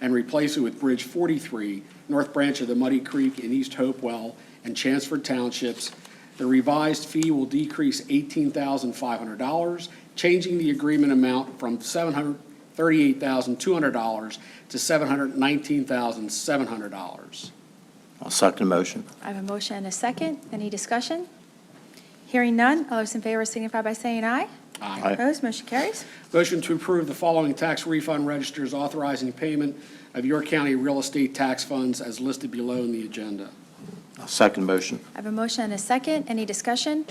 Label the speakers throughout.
Speaker 1: and replace it with Bridge 43, North Branch of the Muddy Creek in East Hopewell and Chanceford Townships. The revised fee will decrease $18,500, changing the agreement amount from $738,200 to $719,700.
Speaker 2: I'll second the motion.
Speaker 3: I have a motion and a second. Any discussion? Hearing none, all those in favor signify by saying aye.
Speaker 1: Aye.
Speaker 2: Aye.
Speaker 3: Opposed, motion carries.
Speaker 1: Motion to approve the following tax refund registers authorizing payment of York County real estate tax funds as listed below in the agenda.
Speaker 2: I'll second the motion.
Speaker 3: I have a motion and a second. Any discussion?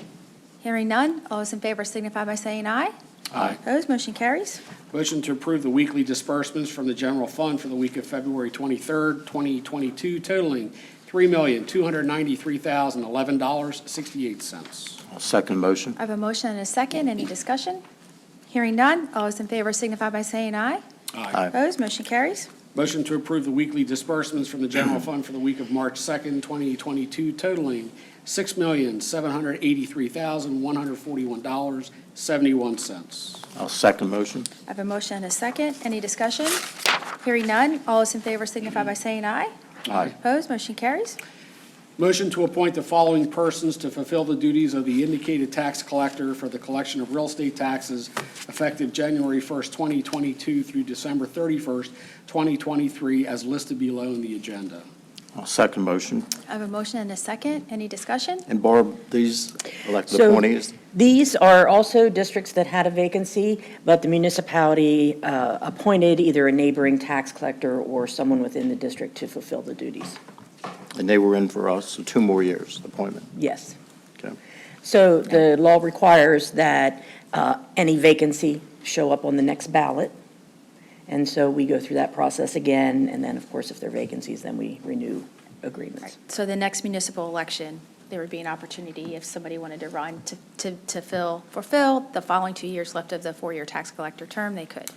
Speaker 3: Hearing none, all those in favor signify by saying aye.
Speaker 1: Aye.
Speaker 3: Opposed, motion carries.
Speaker 1: Motion to approve the weekly disbursements from the general fund for the week of February 23rd, 2022 totaling $3,293,011.68.
Speaker 2: I'll second the motion.
Speaker 3: I have a motion and a second. Any discussion? Hearing none, all those in favor signify by saying aye.
Speaker 2: Aye.
Speaker 3: Opposed, motion carries.
Speaker 1: Motion to approve the weekly disbursements from the general fund for the week of March 2nd, 2022 totaling $6,783,141.71.
Speaker 2: I'll second the motion.
Speaker 3: I have a motion and a second. Any discussion? Hearing none, all those in favor signify by saying aye.
Speaker 2: Aye.
Speaker 3: Opposed, motion carries.
Speaker 1: Motion to appoint the following persons to fulfill the duties of the indicated tax collector for the collection of real estate taxes effective January 1st, 2022 through December 31st, 2023, as listed below in the agenda.
Speaker 2: I'll second the motion.
Speaker 3: I have a motion and a second. Any discussion?
Speaker 2: And Barb, these elected
Speaker 4: So-
Speaker 2: appointees,
Speaker 4: These are also districts that had a vacancy, but the municipality uh, appointed either a neighboring tax collector or someone within the district to fulfill the duties.
Speaker 2: and they were in for us, so two more years appointment.
Speaker 4: Yes.
Speaker 2: Okay.
Speaker 4: So the law requires that uh, any vacancy show up on the next ballot. And so we go through that process again, and then, of course, if there are vacancies, then we renew agreements.
Speaker 3: So the next municipal election, there would be an opportunity if somebody wanted to run to, to, to fill, fulfill the following two years left of the four-year tax collector term, they could.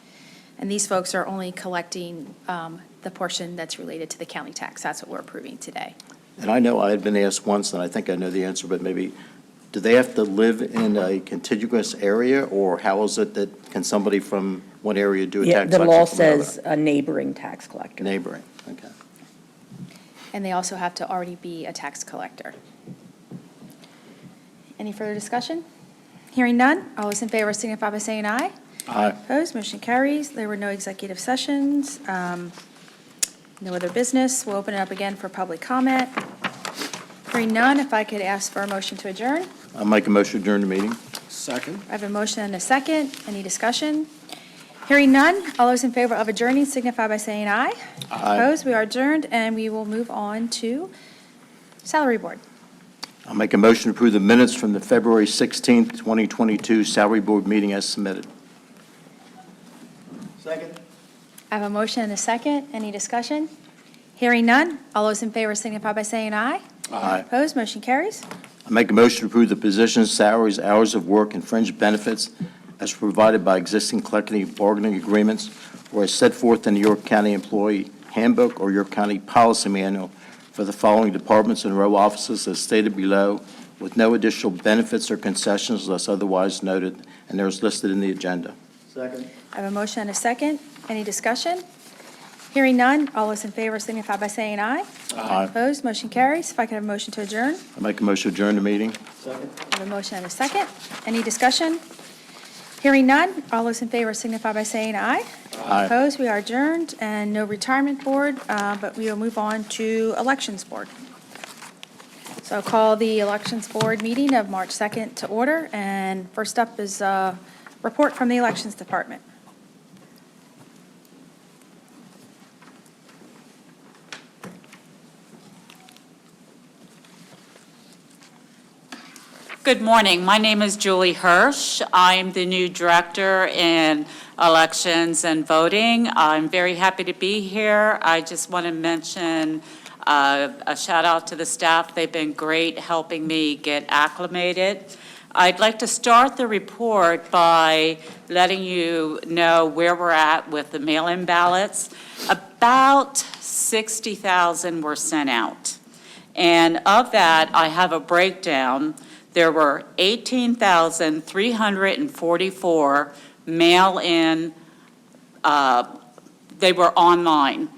Speaker 3: And these folks are only collecting, um, the portion that's related to the county tax. That's what we're approving today.
Speaker 2: And I know I had been asked once, and I think I know the answer, but maybe, do they have to live in a contiguous area, or how is it that, can somebody from one area do a
Speaker 4: Yeah,
Speaker 2: tax
Speaker 4: the
Speaker 2: collection
Speaker 4: law
Speaker 2: from another?
Speaker 4: says a neighboring tax collector.
Speaker 2: Neighboring, okay.
Speaker 3: And they also have to already be a tax collector. Any further discussion? Hearing none, all those in favor signify by saying aye.
Speaker 2: Aye.
Speaker 3: Opposed, motion carries. There were no executive sessions, um, no other business. We'll open it up again for public comment. Hearing none, if I could ask for a motion to adjourn.
Speaker 2: I'll make a motion to adjourn the meeting.
Speaker 1: Second.
Speaker 3: I have a motion and a second. Any discussion? Hearing none, all those in favor of adjourning signify by saying aye.
Speaker 2: Aye.
Speaker 3: Opposed, we are adjourned, and we will move on to Salary Board.
Speaker 2: I'll make a motion to approve the minutes from the February 16th, 2022 Salary Board meeting as submitted. Second.
Speaker 3: I have a motion and a second. Any discussion? Hearing none, all those in favor signify by saying aye.
Speaker 2: Aye.
Speaker 3: Opposed, motion carries.
Speaker 2: I make a motion to approve the positions, salaries, hours of work, and fringe benefits as provided by existing collective bargaining agreements or as set forth in the York County Employee Handbook or York County Policy Manual for the following departments and row offices as stated below, with no additional benefits or concessions unless otherwise noted, and there is listed in the agenda. Second.
Speaker 3: I have a motion and a second. Any discussion? Hearing none, all those in favor signify by saying aye.
Speaker 2: Aye.
Speaker 3: Opposed, motion carries. If I could have a motion to adjourn.
Speaker 2: I make a motion to adjourn the meeting.
Speaker 3: I have a motion and a second. Any discussion? Hearing none, all those in favor signify by saying aye.
Speaker 2: Aye.
Speaker 3: Opposed, we are adjourned, and no retirement board, uh, but we will move on to elections board. So I'll call the elections board meeting of March 2nd to order, and first up is a report from the elections department.
Speaker 5: Good morning. My name is Julie Hirsch. I'm the new Director in Elections and Voting. I'm very happy to be here. I just want to mention uh, a shout out to the staff. They've been great helping me get acclimated. I'd like to start the report by letting you know where we're at with the mail-in ballots. About 60,000 were sent out. And of that, I have a breakdown. There were 18,344 mail-in, uh, they were online.